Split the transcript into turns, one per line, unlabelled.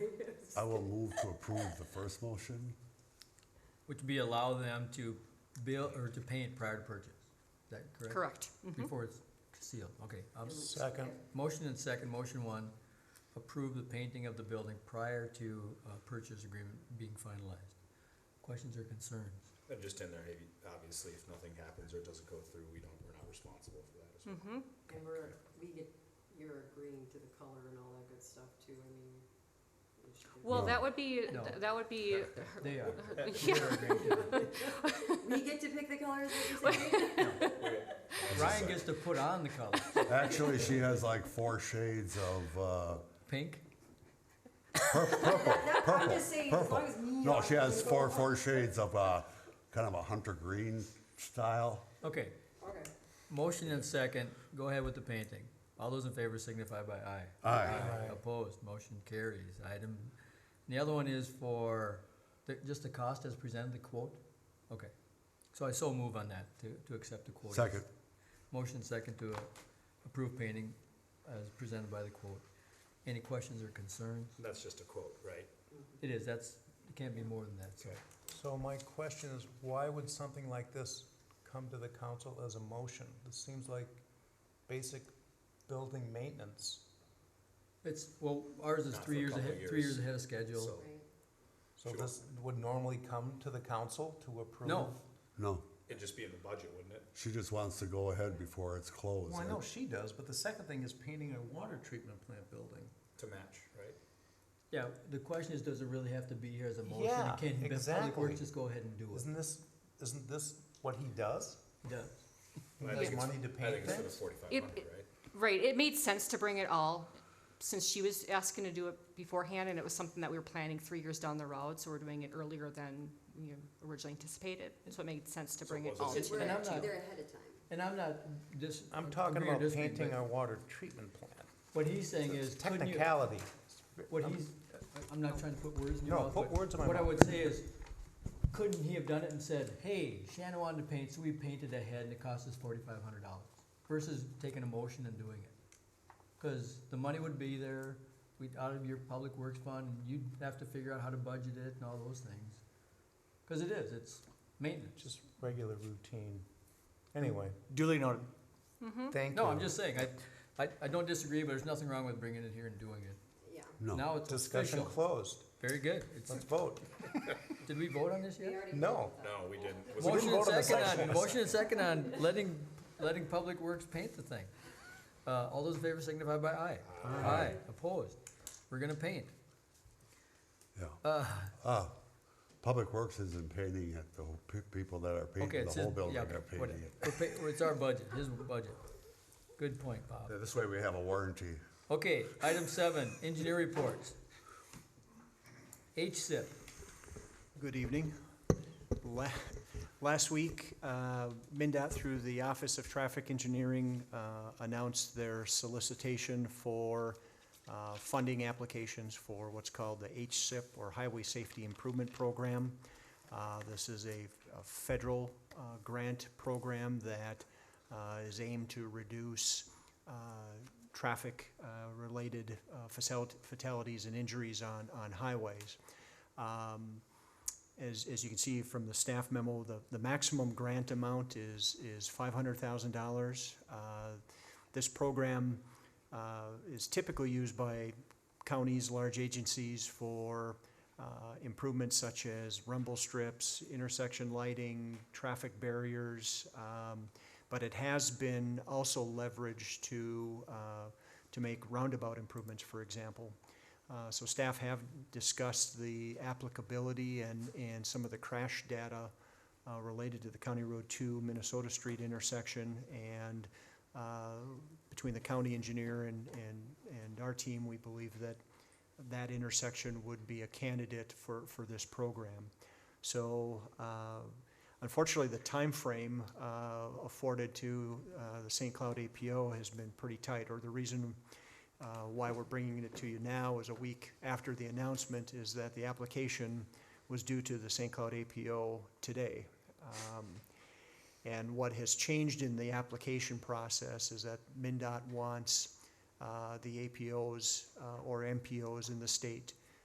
Yes.
I will move to approve the first motion.
Which would be allow them to build or to paint prior to purchase. Is that correct?
Correct. Mhm.
Before it's sealed, okay. Um,
Second.
Motion and second, motion one, approve the painting of the building prior to uh, purchase agreement being finalized. Questions or concerns?
They're just in there, hey, obviously, if nothing happens or it doesn't go through, we don't, we're not responsible for that as well.
Mhm.
And we're, we get, you're agreeing to the color and all that good stuff too, I mean. we should do
Well,
No.
that would be,
No.
that would be,
They are.
yeah,
They're agreeing to it.
that. We get to pick the colors, what you said?
Ryan gets to put on the color.
Actually, she has like four shades of uh,
Pink,
pur- purple,
That- I'm
purple,
just saying, as
purple.
long as neon.
No, she has
people-
four, four shades of uh, kind of a hunter green style.
okay.
Okay.
Motion and second, go ahead with the painting. All those in favor signify by aye.
Aye.
Opposed, motion carries. Item, and the other one is for, the- just the cost as presented, the quote? Okay. So I so move on that, to, to accept the quote.
Second.
Motion second to approve painting as presented by the quote. Any questions or concerns?
That's just a quote, right?
It is, that's, it can't be more than that, so.
So my question is, why would something like this come to the council as a motion? This seems like basic building maintenance.
It's, well, ours is
Not
three
for a
years
couple
ahead, three
years.
years ahead of schedule.
So
Right.
So
Sure.
this would normally come to the council to approve?
No.
No,
it'd just be in the budget, wouldn't it?
she just wants to go ahead before it's closed.
Well, I know she does, but the second thing is painting a water treatment plant building.
To match, right?
Yeah, the question is, does it really have to be here as a motion?
Yeah,
Can Public
exactly.
Works just go ahead and do it?
Isn't this, isn't this what he does?
Yeah.
But I
He
think
has
it's-
money to
I
paint
think it's for the
things?
forty-five
It-
hundred,
it-
right?
right, it made sense to bring it all, since she was asking to do it beforehand, and it was something that we were planning three years down the road, so we're doing it earlier than you know, originally anticipated, so it made sense to
So
bring it
was it
all
just-
to
We're
And
that,
I'm
actually
not-
too.
there ahead of time.
And I'm not dis.
I'm talking
agree or
about
disagree,
painting
but
a water treatment plant.
What he's saying
It's
is, couldn't you,
Technicality.
what
I'm-
he's, I'm not trying to put words in your
No,
mouth,
put
but
words in my
what I
mouth.
would say is, couldn't he have done it and said, hey, Shannon wanted to paint, so we painted ahead and it cost us forty-five hundred dollars? Versus taking a motion and doing it. Cause the money would be there, we'd, out of your public works fund, and you'd have to figure out how to budget it and all those things. Cause it is, it's maintenance.
Just regular routine. Anyway,
Duly noted.
thank you.
No, I'm just saying, I, I, I don't disagree, but there's nothing wrong with bringing it here and doing it.
Yeah,
No,
Now it's
Discussion
official.
closed.
Very good. It's,
Let's vote.
did we vote on this
we
yet?
already.
No.
No, we didn't. Was it-
didn't
Motion and
vote on the
second on,
sections.
motion and second on letting, letting Public Works paint the thing. Uh, all those in favor signify by aye. Aye, opposed. We're gonna paint.
yeah.
Uh,
Uh, Public Works isn't painting it, the whole pe- people that are
okay,
painting
it's
the
his,
whole building
yeah,
are
okay,
painting
whatever.
it.
We're pay- It's our budget, his budget. Good point, Bob.
Yeah, This way we have a warranty.
Okay, item seven, engineer reports. HSIP,
Good evening. La- Last week, uh, MinDOT, through the Office of Traffic Engineering, uh, announced their solicitation for uh, funding applications for what's called the HSIP, or Highway Safety Improvement Program. Uh, This is a a federal uh, grant program that uh, is aimed to reduce uh, traffic-related uh, fatalities and injuries on on highways. Um, as, as you can see from the staff memo, the, the maximum grant amount is, is five hundred thousand dollars. Uh, This program uh, is typically used by counties, large agencies for uh, improvements such as rumble strips, intersection lighting, traffic barriers. um, But it has been also leveraged to, uh, to make roundabout improvements, for example. Uh, So staff have discussed the applicability and, and some of the crash data uh, related to the County Road 2 Minnesota Street intersection. And uh, between the county engineer and, and, and our team, we believe that that intersection would be a candidate for, for this program. So uh, unfortunately, the timeframe uh, afforded to uh, the St. Cloud APO has been pretty tight, or the reason uh, why we're bringing it to you now is a week after the announcement is that the application was due to the St. Cloud APO today. Um, And what has changed in the application process is that MinDOT wants uh, the APOs uh, or MPOs in the state